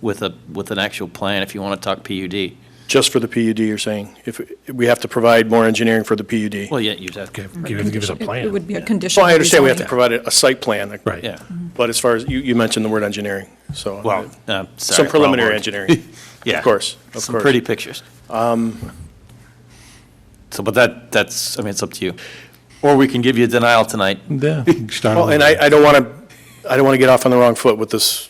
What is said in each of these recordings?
with a, with an actual plan if you want to talk PUD. Just for the PUD, you're saying? If, we have to provide more engineering for the PUD? Well, yeah, you'd have to, Give us- give us a It- It plan. would be a condition. So I understand we have to rezoning. provide a a site plan. Right. yeah. But as far as, you, you mentioned the word engineering, so. Well, uh, sorry, Some wrong preliminary word. engineering, Yeah. of course, of Some pretty course. Um, pictures. So, but that, that's, I mean, it's up to you. Or we can give you a denial tonight. Yeah. Well, Oh, and I, I don't want to, I don't want to get off on the wrong foot with this,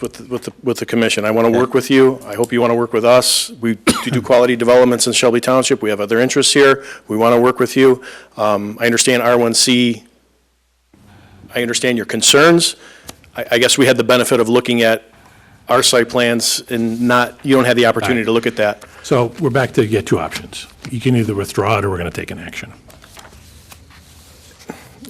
with, the- with, the with the commission. I want to work with you. I hope you want to work with us. We do do quality developments in Shelby Township. We have other interests here. We want to work with you. Um, I understand R1C, I understand your concerns. I, I guess we had the benefit of looking at our site plans and not, you don't have the opportunity to look at that. So we're back to, get two options. You can either withdraw it or we're going to take an action.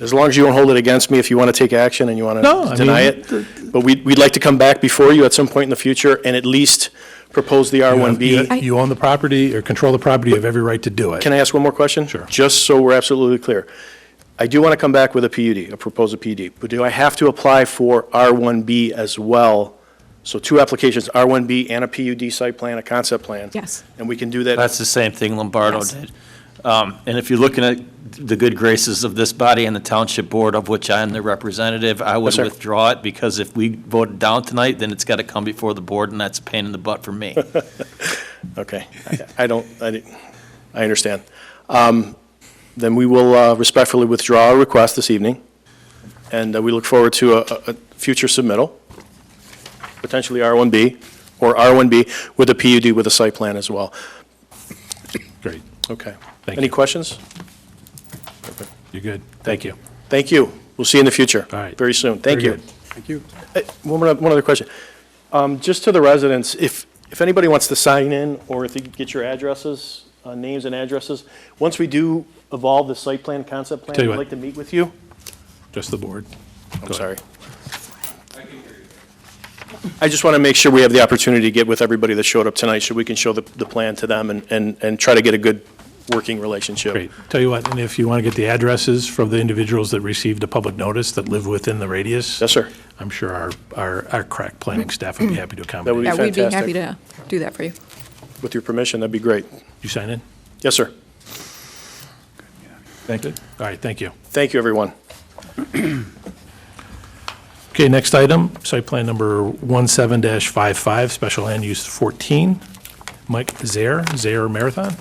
As long as you don't hold it against me if you want to take action and you want No, I to deny mean, it. But we'd, we'd like to come back before you at some point in the future and at least propose the You- R1B. You own the property or control the property, you have every right to do it. Can I ask one more question? Sure. Just so we're absolutely clear. I do want to come back with a PUD, a proposed PUD, but do I have to apply for R1B as well? So two applications, R1B and a PUD site plan, a concept plan? Yes. And we can do that? That's the same thing Lombardo Yes. did. Um, And if you're looking at the good graces of this body and the township board, of which I am the representative, I would sir. withdraw it, because if we vote it down tonight, then it's got to come before the board, and that's a pain in the butt for me. Okay. I- I don't, I didn't- I understand. Um, Then we will uh, respectfully withdraw our request this evening, and uh, we look forward to a- a a future submittal, potentially R1B, or R1B with a PUD with a site plan as well. Great. Okay. Thank Any you. questions? You're good. Thank you. Thank you. We'll see you in the future. All right. Very soon. Thank Very you. good. One more, one other question. Um, Just to the residents, if, if anybody wants to sign in, or if you could get your addresses, uh, names and addresses, once we do evolve the site plan, concept plan, Tell you I'd what. like to meet with you. Just the board. I'm sorry. I just want to make sure we have the opportunity to get with everybody that showed up tonight, so we can show the, the plan to them and, and, and try to get a good working relationship. Great. Tell you what, and if you want to get the addresses from the individuals that received a public notice that live within the radius. Yes, sir. I'm sure our, our, our crack planning staff would be happy to That would be accommodate. Yeah, we'd be happy fantastic. to do that for you. With your permission, that'd be great. You sign in? Yes, sir. Thank you. All right, thank you. Thank you, everyone. Okay, next item, site plan number 17-55, special land use 14. Mike Zaire, Zaire Marathon.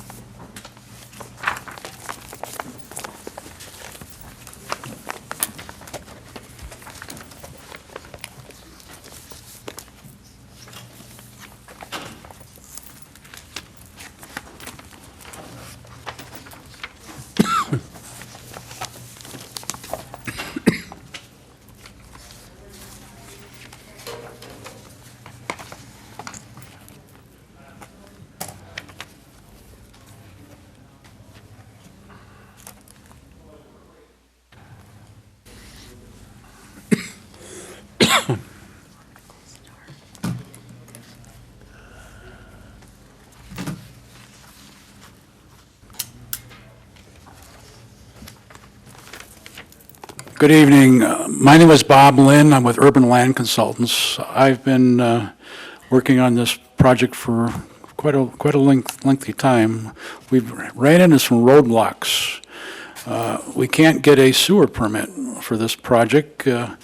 Good evening. Uh, My name is Bob Lynn. I'm with Urban Land Consultants. I've been uh, working on this project for quite a, quite a length- lengthy time. We've ran into some roadblocks. Uh, We can't get a sewer permit for this project. Uh,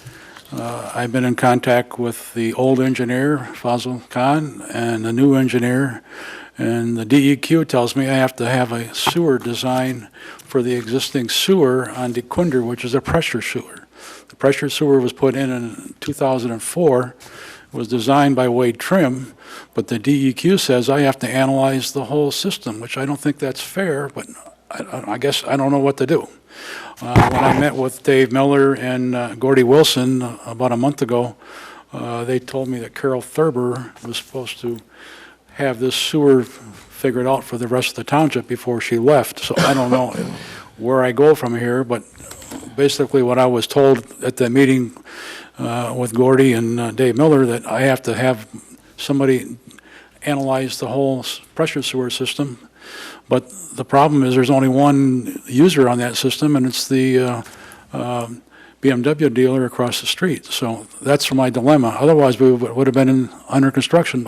uh, I've been in contact with the old engineer, Fazil Khan, and the new engineer, and the DEQ tells me I have to have a sewer design for the existing sewer on DeQuinder, which is a pressure sewer. The pressure sewer was put in in 2004, was designed by Wade Trim, but the DEQ says I have to analyze the whole system, which I don't think that's fair, but I I guess I don't know what to do. Uh, When I met with Dave Miller and uh, Gordy Wilson about a month ago, uh, they told me that Carol Thurber was supposed to have this sewer figured out for the rest of the township before she left. So I don't know where I go from here, but basically what I was told at the meeting uh, with Gordy and uh, Dave Miller, that I have to have somebody analyze the whole s- pressure sewer system. But the problem is, there's only one user on that system, and it's the uh, um, BMW dealer across the street. So that's my dilemma. Otherwise, we would would have been in- under construction